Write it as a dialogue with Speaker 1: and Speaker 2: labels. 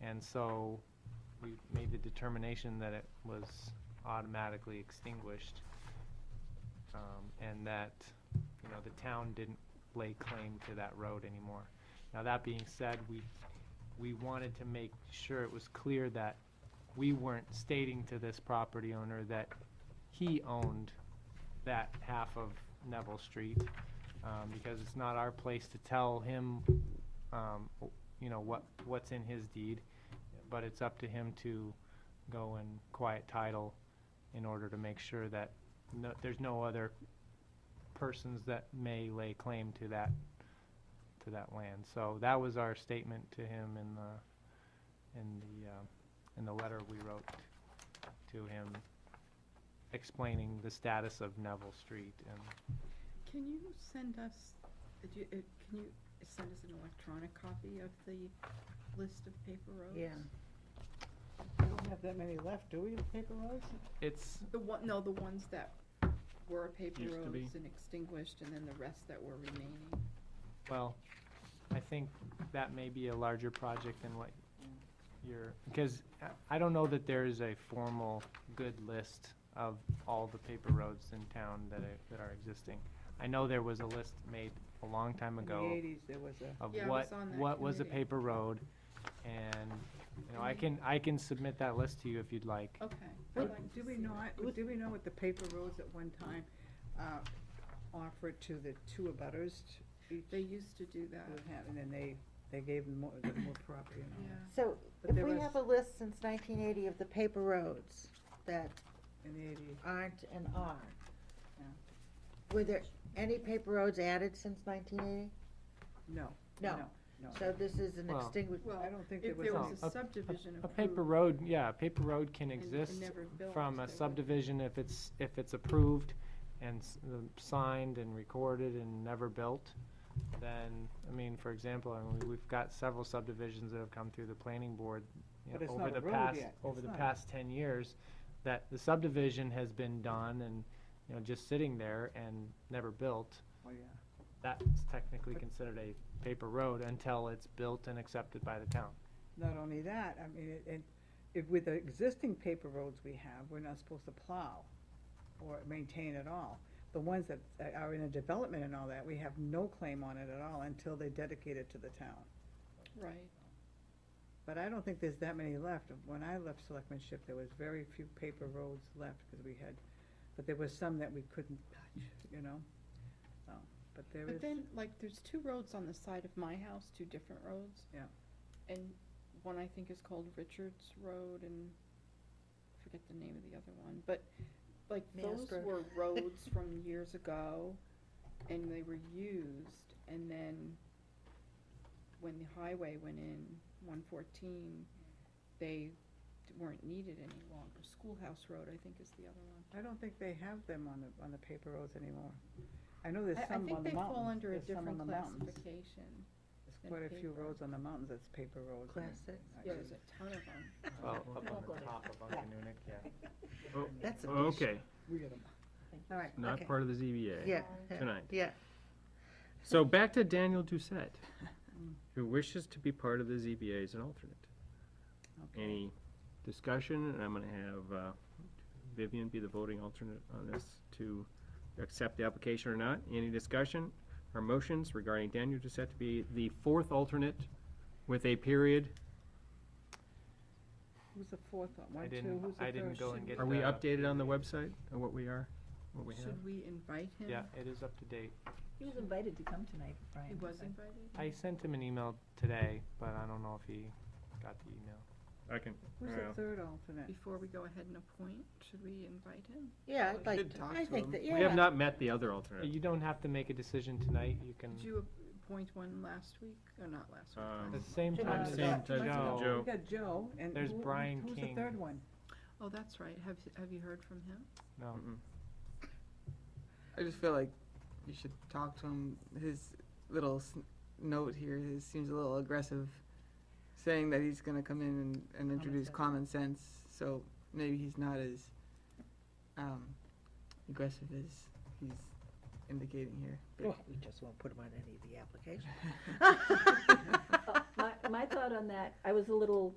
Speaker 1: And so we made the determination that it was automatically extinguished. um, And that, you know, the town didn't lay claim to that road anymore. Now, that being said, we, we wanted to make sure it was clear that we weren't stating to this property owner that he owned that half of Neville Street, um, because it's not our place to tell him, um, you know, what, what's in his deed, but it's up to him to go and quiet title in order to make sure that no, there's no other persons that may lay claim to that, to that land. So that was our statement to him in the, in the, um, in the letter we wrote to him explaining the status of Neville Street and
Speaker 2: Can you send us, uh, do you- uh, can you send us an electronic copy of the list of paper roads?
Speaker 3: Yeah.
Speaker 4: We don't have that many left, do we, of paper roads?
Speaker 1: it's,
Speaker 2: The one, no, the ones that were paper
Speaker 5: Used to be.
Speaker 2: roads and extinguished, and then the rest that were remaining.
Speaker 1: well, I think that may be a larger project than what you're, because I- I don't know that there is a formal good list of all the paper roads in town that are, that are existing. I know there was a list made a long time
Speaker 4: In the
Speaker 1: ago
Speaker 4: eighties, there was a,
Speaker 1: of
Speaker 2: Yeah, I was
Speaker 1: what,
Speaker 2: on that
Speaker 1: what was a
Speaker 2: committee.
Speaker 1: paper road. And, you know, I can, I can submit that list to you if you'd like.
Speaker 2: Okay. I'd
Speaker 4: Well,
Speaker 2: like to
Speaker 4: do we
Speaker 2: see
Speaker 4: know,
Speaker 2: that.
Speaker 4: do we know what the paper roads at one time, uh, offered to the two abutters? to each
Speaker 2: They used to do that,
Speaker 4: who had- And then they, they gave them more, them more property and all.
Speaker 2: yeah.
Speaker 3: So
Speaker 4: But
Speaker 3: if
Speaker 4: there
Speaker 3: we
Speaker 4: was-
Speaker 3: have a list since nineteen eighty of the paper roads that
Speaker 4: In the eighties,
Speaker 3: aren't and are,
Speaker 4: Yeah.
Speaker 3: were there any paper roads added since nineteen eighty?
Speaker 4: no,
Speaker 3: No.
Speaker 4: no, no.
Speaker 3: So this is an
Speaker 1: Well-
Speaker 3: extinguished,
Speaker 2: Well,
Speaker 4: I don't think there
Speaker 2: if
Speaker 4: was.
Speaker 2: there
Speaker 1: No,
Speaker 2: was
Speaker 1: a-
Speaker 2: a subdivision
Speaker 1: A
Speaker 2: approved.
Speaker 1: paper road, yeah, a paper road can
Speaker 2: and- and
Speaker 1: exist
Speaker 2: never built,
Speaker 1: from
Speaker 2: they
Speaker 1: a
Speaker 2: would-
Speaker 1: subdivision if it's, if it's approved and s- um, signed and recorded and never built, then, I mean, for example, I mean, we've got several subdivisions that have come through the planning board you
Speaker 4: But
Speaker 1: know,
Speaker 4: it's
Speaker 1: over
Speaker 4: not a
Speaker 1: the
Speaker 4: road
Speaker 1: past,
Speaker 4: yet.
Speaker 1: over
Speaker 4: It's
Speaker 1: the
Speaker 4: not.
Speaker 1: past ten years, that the subdivision has been done and, you know, just sitting there and never built,
Speaker 4: Oh, yeah.
Speaker 1: that's technically considered a paper road until it's built and accepted by the town.
Speaker 4: Not only that, I mean, it- and if with the existing paper roads we have, we're not supposed to plow or maintain at all. The ones that are in a development and all that, we have no claim on it at all until they dedicate it to the town.
Speaker 2: Right.
Speaker 4: But I don't think there's that many left. When I left selectmanship, there was very few paper roads left because we had, but there was some that we couldn't touch, you know? So, but there
Speaker 2: But
Speaker 4: is,
Speaker 2: then, like, there's two roads on the side of my house, two different roads.
Speaker 4: Yeah.
Speaker 2: And one I think is called Richards Road and I forget the name of the other one, but like
Speaker 3: Mass
Speaker 2: those
Speaker 3: Road.
Speaker 2: were roads from years ago and they were used and then when the highway went in, one fourteen, they d- weren't needed any longer. Schoolhouse Road, I think, is the other one.
Speaker 4: I don't think they have them on the, on the paper roads anymore. I know there's
Speaker 2: I, I
Speaker 4: some on
Speaker 2: think
Speaker 4: the
Speaker 2: they fall
Speaker 4: mountains.
Speaker 2: under a
Speaker 4: There's some on
Speaker 2: different
Speaker 4: the mountains.
Speaker 2: classification.
Speaker 4: There's
Speaker 2: than
Speaker 4: quite a few
Speaker 2: paper.
Speaker 4: roads on the mountains that's paper roads. and
Speaker 3: Class
Speaker 4: I- I
Speaker 3: six.
Speaker 2: Yeah,
Speaker 4: couldn't-
Speaker 2: there's a ton of them.
Speaker 1: Well,
Speaker 4: Oh,
Speaker 3: Well,
Speaker 1: up
Speaker 3: don't
Speaker 1: on
Speaker 3: go
Speaker 1: the
Speaker 3: there.
Speaker 1: top of
Speaker 3: Yeah.
Speaker 1: Unkemoonik, yeah.
Speaker 5: Oh,
Speaker 3: that's a condition.
Speaker 5: Okay,
Speaker 3: all right,
Speaker 5: not
Speaker 3: okay.
Speaker 5: part of the ZBA.
Speaker 3: Yeah,
Speaker 5: Tonight.
Speaker 3: yeah.
Speaker 5: So back to Daniel Doucette, who wishes to be part of the ZBA as an alternate.
Speaker 4: Okay.
Speaker 5: Any discussion? And I'm gonna have uh, Vivian be the voting alternate on this to accept the application or not. Any discussion or motions regarding Daniel Doucette to be the fourth alternate with a period?
Speaker 4: Who's the fourth one?
Speaker 1: I
Speaker 4: One, two,
Speaker 1: didn't-
Speaker 4: who's the first?
Speaker 1: I didn't go and get
Speaker 5: Are we
Speaker 1: the- uh,
Speaker 5: updated on the website of what we are, what we have?
Speaker 2: Should we invite him?
Speaker 1: Yeah, it is up to date.
Speaker 6: He was invited to come tonight, Brian.
Speaker 2: He was
Speaker 6: but-
Speaker 2: invited?
Speaker 1: I sent him an email today, but I don't know if he got the email.
Speaker 5: I can,
Speaker 4: Who's
Speaker 5: Yeah.
Speaker 4: the third alternate?
Speaker 2: Before we go ahead and appoint, should we invite him?
Speaker 3: Yeah,
Speaker 2: We
Speaker 3: I'd like,
Speaker 5: did
Speaker 3: to-
Speaker 5: talk
Speaker 3: I
Speaker 5: to
Speaker 3: think
Speaker 5: him.
Speaker 3: that,
Speaker 5: we have
Speaker 3: yeah,
Speaker 5: not met the other alternate.
Speaker 1: You don't have to make a decision tonight, you can,
Speaker 2: Did you appoint one last week, or not last week?
Speaker 5: Um,
Speaker 1: at
Speaker 2: last-
Speaker 1: the same
Speaker 3: Same
Speaker 1: time
Speaker 3: time
Speaker 1: as
Speaker 3: as
Speaker 5: Joe.
Speaker 1: Joe.
Speaker 4: We got Joe and.
Speaker 1: There's
Speaker 4: who-
Speaker 1: Brian
Speaker 4: Who's
Speaker 1: King.
Speaker 4: the third one?
Speaker 2: Oh, that's right. Have, have you heard from him?
Speaker 1: No,
Speaker 5: Mm-mm.
Speaker 7: I just feel like you should talk to him. His little s- note here is, seems a little aggressive, saying that he's going to come in and, and introduce
Speaker 6: sense.
Speaker 7: common sense. So maybe he's not as um, aggressive as he's indicating here.
Speaker 3: Well, we just won't put him on any of the applications.
Speaker 6: My, my thought on that, I was a little